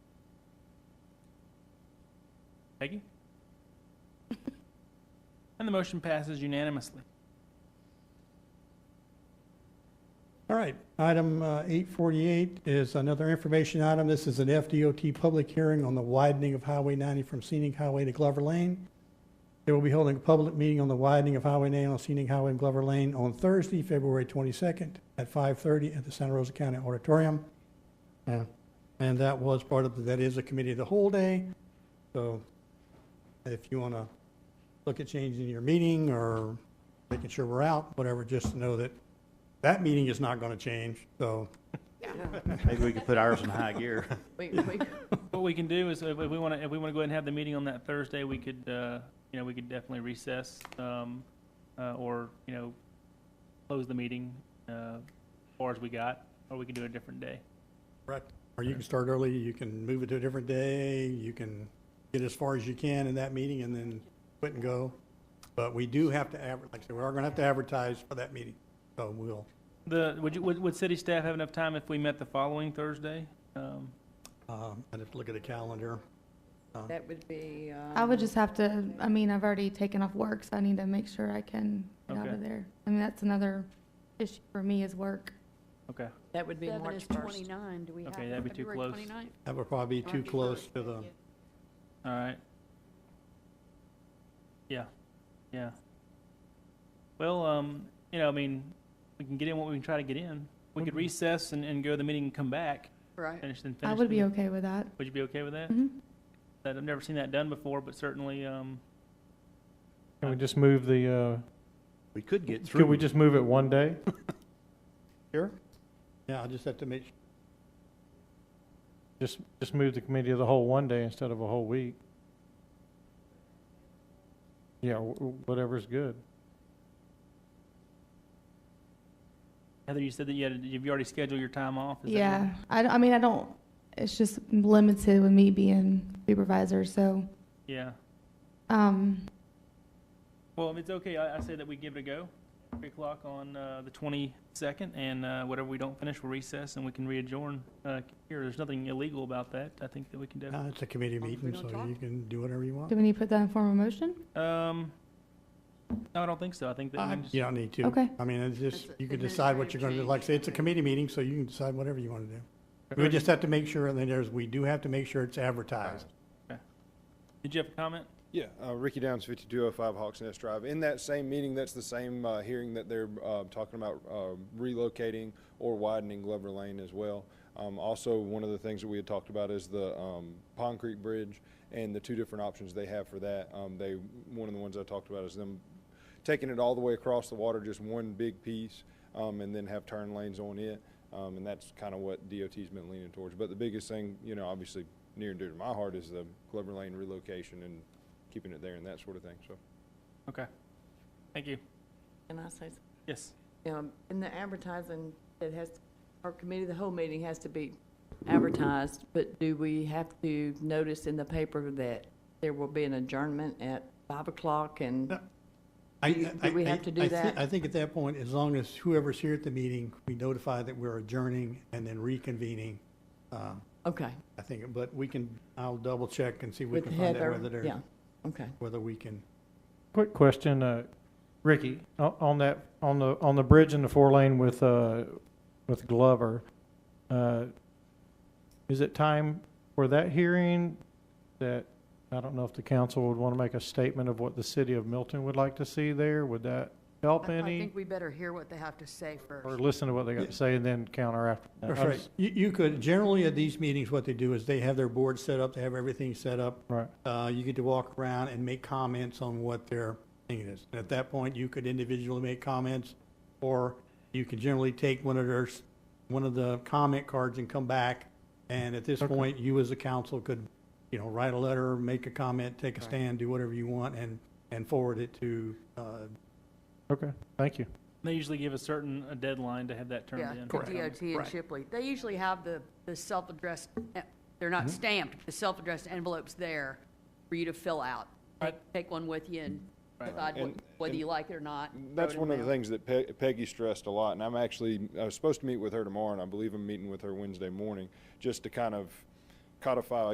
Peggy? And the motion passes unanimously. All right, item uh, 848 is another information item. This is an FDOT public hearing on the widening of Highway 90 from Scenic Highway to Glover Lane. They will be holding a public meeting on the widening of Highway 90 on Scenic Highway and Glover Lane on Thursday, February 22nd at 5:30 at the Santa Rosa County Auditorium. Uh, And that was part of, that is a committee of the whole day. So if you want to look at changing your meeting or making sure we're out, whatever, just know that that meeting is not going to change, so, Maybe we could put ours in high gear. We, we, What we can do is, if if we want to, if we want to go ahead and have the meeting on that Thursday, we could, uh, you know, we could definitely recess, um, uh, or, you know, close the meeting, uh, as far as we got, or we can do it a different day. or you can start early, you can move it to a different day, you can get as far as you can in that meeting and then quit and go. But we do have to adver, like I said, we are going to have to advertise for that meeting, so we'll, The, would you, would, would city staff have enough time if we met the following Thursday? Um, um, I'd have to look at the calendar. Um, that would be. I would um, just have to, I mean, I've already taken off work, so I need to make sure I can get out Okay. of there. I mean, that's another issue for me is work. Okay, That would be Seven March is 1st. twenty-nine, do we have? Okay, that'd be too February close. 29? That would probably be too March close first. to the, all right. Yeah, yeah. Well, um, you know, I mean, we can get in what we can try to get in. We could recess and, and go to the meeting and come back, Right. finish and finish. Mm-hmm. I would the- be okay with that. Would you be okay with that? Mhm. That, I've never seen that done before, but certainly, um, Can we just move the, uh, We could get through. could we just move it one day? here? Yeah, I just have to make, Just, just move the committee of the whole one day instead of a whole week? Yeah, wh- wh- whatever's good. Heather, you said that you had, you've already scheduled your time off? is that Yeah, right? I, don't- I mean, I don't, it's just limited with me being supervisor, so, Yeah. um, Well, if it's okay, I, I say that we give it a go. Three o'clock on, uh, the twenty-second, and, uh, whatever we don't finish, we'll recess and we can readjourn, uh, here. There's nothing illegal about that. I think that we can uh, definitely, it's a committee Long as we meeting, don't so talk. you can do whatever you want. do we need to put that in form of motion? um, no, I don't think so. I think that we Uh, can just. You don't need to. Okay. I mean, it's just, That's you can decide what you're going to do. administrative Like I say, it's a change. committee meeting, so you can decide whatever you want to do. We just have to make sure, and then there's, we do have to make sure it's advertised. Did you have a comment? Yeah, uh, Ricky Downs, 5205 Hawks Nest Drive. In that same meeting, that's the same uh, hearing that they're uh, talking about uh, relocating or widening Glover Lane as well. Um, Also, one of the things that we had talked about is the um, Pond Creek Bridge and the two different options they have for that. Um, They, one of the ones I talked about is them taking it all the way across the water, just one big piece, um, and then have turn lanes on it. Um, and that's kind of what DOT's been leaning towards. But the biggest thing, you know, obviously near and dear to my heart is the Glover Lane relocation and keeping it there and that sort of thing, so. Okay. Thank you. Can I say, Yes. something? um, in the advertising, it has, our committee, of the whole meeting has to be advertised, but do we have to notice in the paper that there will be an adjournment at five o'clock and? No. I- Do I- we have I- to do I thi- that? I think at that point, as long as whoever's here at the meeting, we notify that we're adjourning and then reconvening. uh, Okay, I think, but we can, I'll double check and see if we with can find out Heather, whether yeah, they're, okay. whether we can. Quick question, uh, Ricky, o- on that, on the, on the bridge in the four lane with, uh, with Glover, uh, is it time for that hearing that, I don't know if the council would want to make a statement of what the city of Milton would like to see there? Would that help I- I any? think we better hear what they have to say first. Or listen to what they got to say and then counter after? that? That's right. You, you could, generally at these meetings, what they do is they have their board set up, they have everything set up. Right. Uh, you get to walk around and make comments on what their thing is. And at that point, you could individually make comments, or you could generally take one of their, s- one of the comment cards and come back. And at this Okay. point, you as a council could, you know, write a letter, make a comment, take a stand, do whatever you want, and, and forward it to, uh, Okay, thank you. They usually give a certain uh, deadline to have that turned Yeah, in. the DOT and Right. Shipley. They usually have the, the self-addressed, eh, they're not Mm-hmm. stamped, but the self-addressed envelopes there for you to fill out. Right. Take one with you and Right. decide what- And- whether and you like it or not. That's Throw it in one of the mail. things that Pe- Peggy stressed a lot, and I'm actually, I was supposed to meet with her tomorrow, and I believe I'm meeting with her Wednesday morning, just to kind of codify